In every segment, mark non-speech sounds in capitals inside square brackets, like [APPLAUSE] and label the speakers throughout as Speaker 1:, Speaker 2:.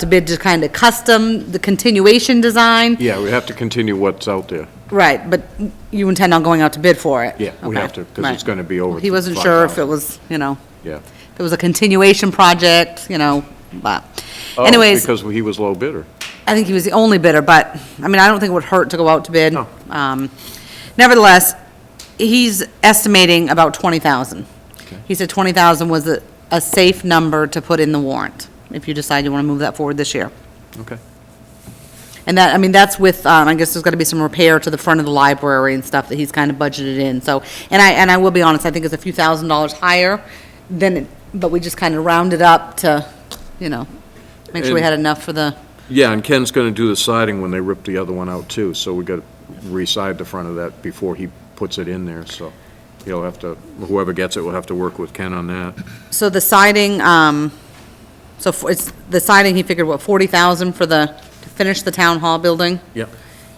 Speaker 1: to bid to kind of custom, the continuation design?
Speaker 2: Yeah, we have to continue what's out there.
Speaker 1: Right, but you intend on going out to bid for it?
Speaker 2: Yeah, we have
Speaker 1: Okay,
Speaker 2: to, 'cause it's
Speaker 1: right.
Speaker 2: gonna be over
Speaker 1: He wasn't sure if it was, you know,
Speaker 2: Yeah.
Speaker 1: if it was a continuation project, you know, but
Speaker 2: Oh,
Speaker 1: anyways,
Speaker 2: Because he was low bidder.
Speaker 1: I think he was the only bidder, but, I mean, I don't think it would hurt to go out to bid.
Speaker 2: No.
Speaker 1: Um, Nevertheless, he's estimating about 20,000. He said 20,000 was a, a safe number to put in the warrant, if you decide you want to move that forward this year.
Speaker 2: Okay.
Speaker 1: And that, I mean, that's with, um, I guess there's gotta be some repair to the front of the library and stuff that he's kind of budgeted in, so. And I, and I will be honest, I think it's a few thousand dollars higher than, it- but we just kind of rounded up to, you know, make sure we
Speaker 2: And-
Speaker 1: had enough for the,
Speaker 2: Yeah, and Ken's gonna do the siding when they rip the other one out too, so we gotta re-side the front of that before he puts it in there, so he'll have to, whoever gets it will have to work with Ken on that.
Speaker 1: so the siding, um, so f- it's, the siding, he figured, what, forty thousand for the, to finish the town hall building?
Speaker 2: Yeah.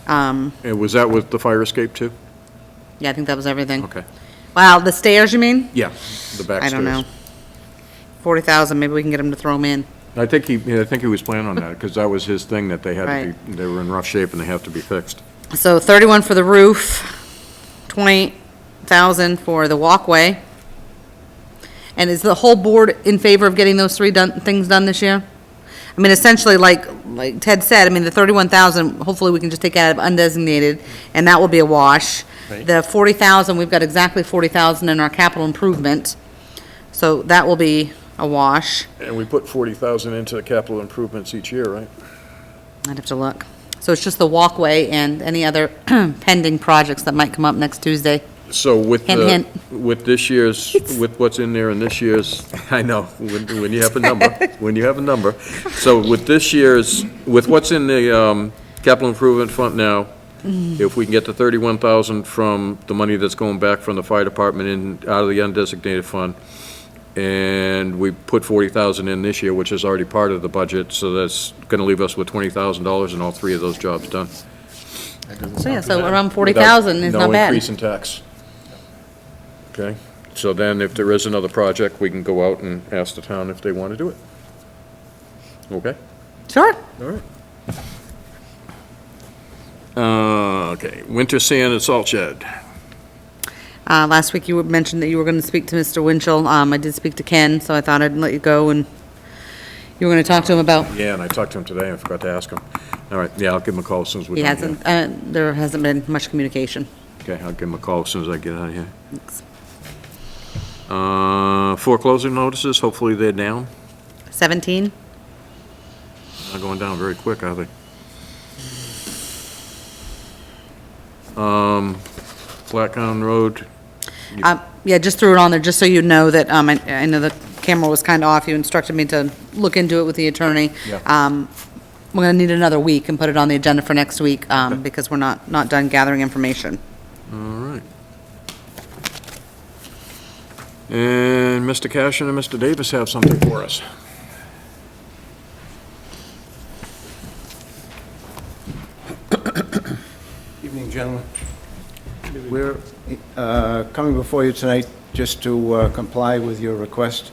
Speaker 1: Um,
Speaker 2: And was that with the fire escape too?
Speaker 1: yeah, I think that was everything.
Speaker 2: Okay.
Speaker 1: Wow, the stairs, you mean?
Speaker 2: Yeah, the back
Speaker 1: I
Speaker 2: stairs.
Speaker 1: don't know. Forty thousand, maybe we can get him to throw them in.
Speaker 2: I think he, yeah, I think he was planning on that, because that was his thing, that they had to
Speaker 1: Right.
Speaker 2: be, they were in rough shape and they have to be fixed.
Speaker 1: So 31 for the roof, 20,000 for the walkway. And is the whole board in favor of getting those three done, things done this year? I mean, essentially, like, like Ted said, I mean, the 31,000, hopefully we can just take out of undesignated, and that will be a wash.
Speaker 2: Right.
Speaker 1: The 40,000, we've got exactly 40,000 in our capital improvement, so that will be a wash.
Speaker 2: And we put forty thousand into capital improvements each year, right?
Speaker 1: I'd have to look. So it's just the walkway and any other [CLEARS THROAT] pending projects that might come up next Tuesday.
Speaker 2: So with
Speaker 1: Hint,
Speaker 2: the,
Speaker 1: hint.
Speaker 2: with this
Speaker 1: [LAUGHS]
Speaker 2: year's, with what's in there and this year's, I know, when, when you have
Speaker 1: [LAUGHS]
Speaker 2: a number, when you have a number. So with this year's, with what's in the, um, capital improvement fund now,
Speaker 1: Mm.
Speaker 2: if we can get the thirty-one thousand from the money that's going back from the fire department in, out of the undesignated fund, and we put forty thousand in this year, which is already part of the budget, so that's gonna leave us with twenty thousand dollars and all three of those jobs done.
Speaker 1: So, yeah, so around 40,000 is
Speaker 2: Without
Speaker 1: not
Speaker 2: No
Speaker 1: bad.
Speaker 2: increase in tax. Okay, so then if there is another project, we can go out and ask the town if they want to do it. Okay?
Speaker 1: Sure.
Speaker 2: All right. Uh, okay, winter sand and salt shed.
Speaker 1: Uh, Last week, you had mentioned that you were going to speak to Mr. Winchell. Um, I did speak to Ken, so I thought I'd let you go, and you were going to talk to him about,
Speaker 2: Yeah, and I talked to him today, I forgot to ask him. All right, yeah, I'll give him a call as soon as we're
Speaker 1: he
Speaker 2: done here.
Speaker 1: hasn't, uh, there hasn't been much communication.
Speaker 2: Okay, I'll give him a call as soon as I get out of here. Uh, foreclosure notices, hopefully they're down,
Speaker 1: 17?
Speaker 2: not going down very quick, are they? Um, Flatcon Road,
Speaker 1: Um, Yeah, just threw it on there, just so you know that, um, I I know the camera was kind of off. You instructed me to look into it with the attorney.
Speaker 2: Yeah.
Speaker 1: Um, We're going to need another week and put it on the agenda for next week, um, because we're not, not done gathering information.
Speaker 2: all right. And Mr. Cashin and Mr. Davis have something for us.
Speaker 3: Evening, gentlemen. We're uh, coming before you tonight just to uh, comply with your request,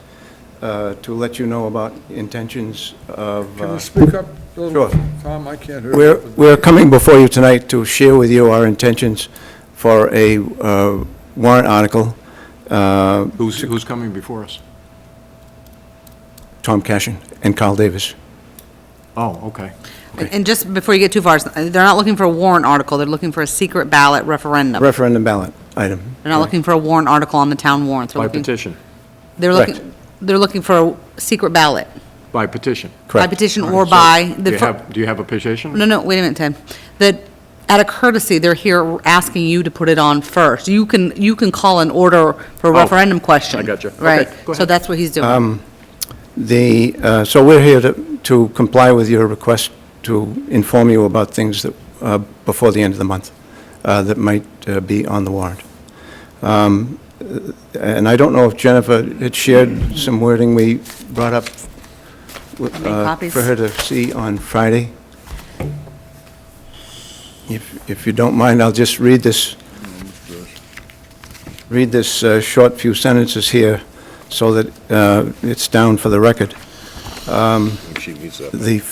Speaker 3: uh, to let you know about intentions of...
Speaker 4: Can
Speaker 3: uh,
Speaker 4: you speak up a little?
Speaker 3: Sure.
Speaker 4: Tom, I can't hear.
Speaker 3: We're we're coming before you tonight to share with you our intentions for a uh, warrant article. Uh,
Speaker 2: Who's, who's coming before us?
Speaker 3: Tom Cashin and Carl Davis.
Speaker 2: Oh, okay.
Speaker 1: And and just before you get too far, it's- they're not looking for a warrant article, they're looking for a secret ballot referendum.
Speaker 3: Referendum ballot item.
Speaker 1: They're not looking for a warrant article on the town warrants. They're
Speaker 2: By
Speaker 1: looking-
Speaker 2: petition,
Speaker 1: They're
Speaker 3: Correct.
Speaker 1: looking, they're looking for a secret ballot.
Speaker 2: by petition.
Speaker 1: By
Speaker 3: Correct.
Speaker 1: petition or by,
Speaker 2: Do
Speaker 1: the
Speaker 2: you
Speaker 1: fir-
Speaker 2: have, do you have a petition?
Speaker 1: no, no, wait a minute, Ted. That, out of courtesy, they're here asking you to put it on first. You can, you can call an order for a
Speaker 2: Oh,
Speaker 1: referendum question.
Speaker 2: I gotcha. Okay,
Speaker 1: Right,
Speaker 2: go
Speaker 1: so
Speaker 2: ahead.
Speaker 1: that's what he's doing.
Speaker 3: The, uh, so we're here to to comply with your request to inform you about things that, uh, before the end of the month, uh, that might uh, be on the warrant. Um, uh, And I don't know if Jennifer had shared some wording we brought up w-
Speaker 1: Make
Speaker 3: uh,
Speaker 1: copies.
Speaker 3: for her to see on Friday. If if you don't mind, I'll just read this read this uh, short few sentences here so that uh, it's down for the record. Um, The